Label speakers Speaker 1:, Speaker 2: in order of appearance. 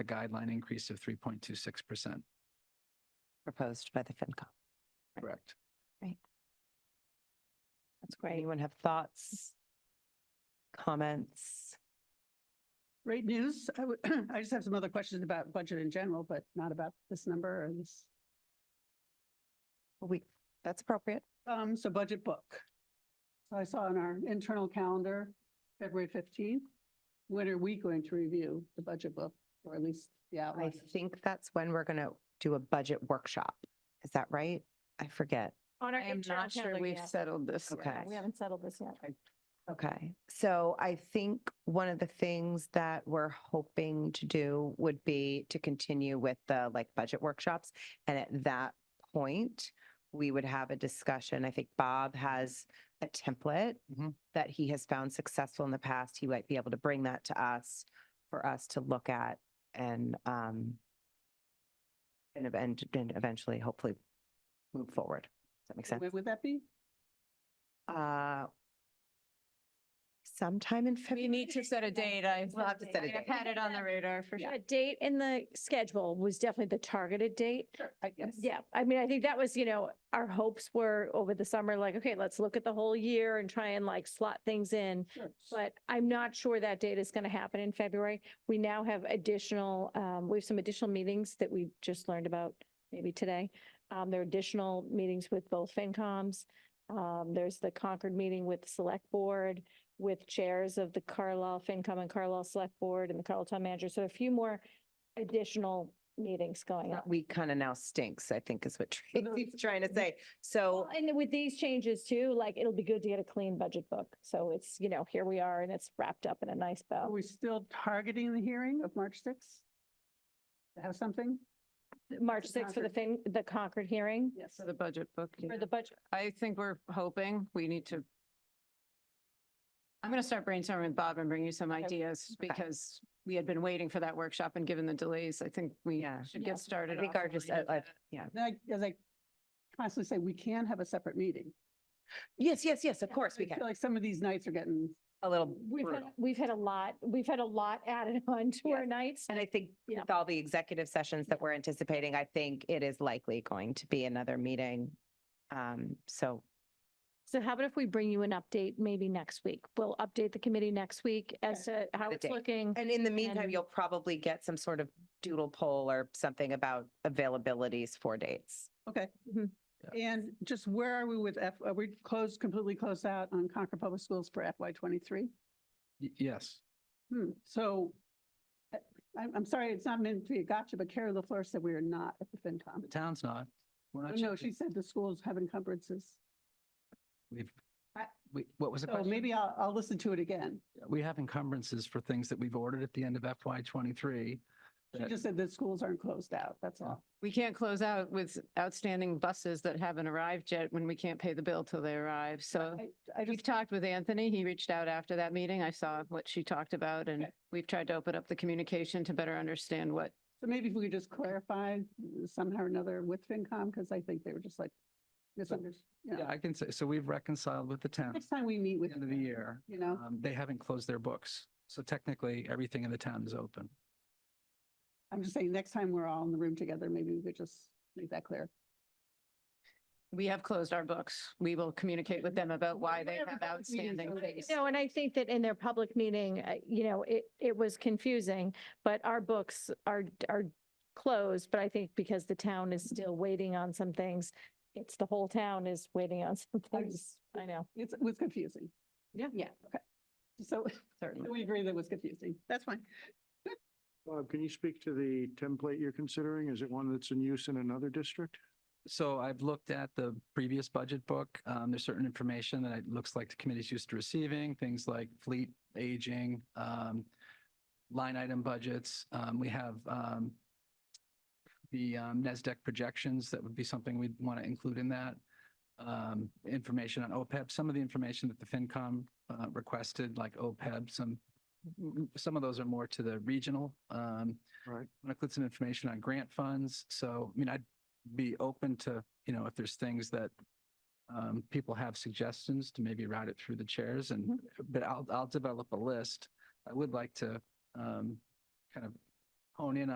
Speaker 1: the guideline increase of 3.26%.
Speaker 2: proposed by the FinCom.
Speaker 1: Correct.
Speaker 2: That's great. Anyone have thoughts? Comments?
Speaker 3: Great news. I would, I just have some other questions about budget in general, but not about this number or this.
Speaker 2: We, that's appropriate.
Speaker 3: Um, so budget book. So I saw in our internal calendar, February fifteenth, when are we going to review the budget book? Or at least the
Speaker 2: I
Speaker 3: outline?
Speaker 2: think that's when we're going to do a budget workshop. Is that right? I forget.
Speaker 4: On our
Speaker 5: I am
Speaker 4: internal
Speaker 5: not sure
Speaker 4: calendar
Speaker 5: we've
Speaker 4: yet.
Speaker 5: settled this.
Speaker 2: Okay.
Speaker 5: yet. We haven't settled this yet.
Speaker 2: Okay, so I think one of the things that we're hoping to do would be to continue with the like budget workshops. And at that point, we would have a discussion. I think Bob has a template
Speaker 1: Mhm.
Speaker 2: that he has found successful in the past. He might be able to bring that to us for us to look at and um and ev- and and eventually hopefully move forward. Does that make sense?
Speaker 3: When would that be?
Speaker 2: Uh, sometime in February.
Speaker 5: We need to set a date. I.
Speaker 2: We'll have to set a
Speaker 5: I've
Speaker 2: date.
Speaker 5: had it on the radar for sure.
Speaker 4: A date in the schedule was definitely the targeted date.
Speaker 3: Sure, I guess.
Speaker 4: Yeah, I mean, I think that was, you know, our hopes were over the summer, like, okay, let's look at the whole year and try and like slot things in.
Speaker 3: Sure.
Speaker 4: But I'm not sure that date is going to happen in February. We now have additional, um, we have some additional meetings that we just learned about maybe today. Um, there are additional meetings with both FinComs. Um, there's the Concord meeting with the Select Board, with chairs of the Carlisle FinCom and Carlisle Select Board and the Carlisle Town Manager. So a few more additional meetings going on.
Speaker 2: We kind of now stinks, I think is what
Speaker 3: no,
Speaker 2: Tracy's trying to say. So,
Speaker 4: Well, And then with these changes too, like it'll be good to get a clean budget book. So it's, you know, here we are and it's wrapped up in a nice
Speaker 3: Are
Speaker 4: bow.
Speaker 3: we still targeting the hearing of March sixth? To have something?
Speaker 4: March sixth for the fin, the Concord hearing
Speaker 3: Yes.
Speaker 5: For the budget book. yeah.
Speaker 4: for the budget.
Speaker 5: I think we're hoping we need to. I'm going to start brainstorming with Bob and bring you some ideas
Speaker 2: Okay.
Speaker 5: because we had been waiting for that workshop and given the delays, I think we
Speaker 2: Yeah.
Speaker 5: should
Speaker 4: Yeah.
Speaker 5: get started.
Speaker 2: I think
Speaker 5: off
Speaker 2: our
Speaker 5: on
Speaker 2: just,
Speaker 5: it.
Speaker 2: uh, uh, yeah.
Speaker 3: Then I, as I constantly say, we can have a separate meeting.
Speaker 2: Yes, yes, yes, of course we
Speaker 3: I
Speaker 2: can.
Speaker 3: feel like some of these nights are getting
Speaker 2: A little
Speaker 4: We've had,
Speaker 2: brutal.
Speaker 4: we've had a lot, we've had a lot added on to our nights.
Speaker 2: And I think
Speaker 4: Yeah.
Speaker 2: with all the executive sessions that we're anticipating, I think it is likely going to be another meeting. Um, so
Speaker 4: So how about if we bring you an update maybe next week? We'll update the committee next week as to how
Speaker 2: The
Speaker 4: it's
Speaker 2: date.
Speaker 4: looking.
Speaker 2: And in the meantime,
Speaker 4: And-
Speaker 2: you'll probably get some sort of doodle poll or something about availabilities for dates.
Speaker 3: Okay.
Speaker 4: Mhm.
Speaker 3: And just where are we with F, are we closed, completely closed out on Concord Public Schools for FY twenty-three?
Speaker 1: Y- Yes.
Speaker 3: Hmm, so I, I'm- I'm sorry, it's not meant to be a gotcha, but Carrie LaFleur said we are not at the FinCom.
Speaker 1: The town's not. We're not.
Speaker 3: No,
Speaker 1: changing.
Speaker 3: she said the schools have encumbrances.
Speaker 1: We've,
Speaker 3: I-
Speaker 1: we, what was the
Speaker 3: So
Speaker 1: question?
Speaker 3: Oh, maybe I'll, I'll listen to it again.
Speaker 1: We have encumbrances for things that we've ordered at the end of FY twenty-three.
Speaker 3: She
Speaker 1: that-
Speaker 3: just said that schools aren't closed out, that's all.
Speaker 5: We can't close out with outstanding buses that haven't arrived yet when we can't pay the bill till they arrive. So
Speaker 3: I, I
Speaker 5: we've
Speaker 3: just,
Speaker 5: talked with Anthony. He reached out after that meeting. I saw what she talked about and
Speaker 3: Okay.
Speaker 5: we've tried to open up the communication to better understand what
Speaker 3: so maybe if we could just clarify somehow or another with FinCom, because I think they were just like, misunderstood, you
Speaker 1: Yeah,
Speaker 3: know.
Speaker 1: I can say, so we've reconciled with the town at
Speaker 3: Next time we meet
Speaker 1: the
Speaker 3: with.
Speaker 1: end of the
Speaker 3: them,
Speaker 1: year.
Speaker 3: You know?
Speaker 1: Um, They haven't closed their books. So technically, everything in the town is open.
Speaker 3: I'm just saying, next time we're all in the room together, maybe we could just make that clear.
Speaker 5: We have closed our books. We will communicate with them about why they
Speaker 3: Whatever
Speaker 5: have
Speaker 3: public meetings
Speaker 5: outstanding
Speaker 3: are
Speaker 5: things.
Speaker 4: No, and I think that in their public meeting, uh, you know, it, it was confusing, but our books are, are closed. But I think because the town is still waiting on some things, it's the whole town is waiting on some things. I know.
Speaker 3: It's, it was confusing.
Speaker 5: Yeah.
Speaker 3: Yeah, okay. So
Speaker 5: Certainly.
Speaker 3: we agree that it was confusing. That's fine.
Speaker 6: Bob, can you speak to the template you're considering? Is it one that's in use in another district?
Speaker 1: So I've looked at the previous budget book. Um, there's certain information that it looks like the committee's used to receiving, things like fleet, aging, um, line item budgets. Um, we have, um, the, um, NASDAQ projections. That would be something we'd want to include in that. Um, information on OPEB, some of the information that the FinCom, uh, requested, like OPEB, some, some of those are more to the regional. Um,
Speaker 6: Right.
Speaker 1: want to include some information on grant funds. So, I mean, I'd be open to, you know, if there's things that um, people have suggestions to maybe route it through the chairs and, but I'll, I'll develop a list. I would like to um, kind of hone in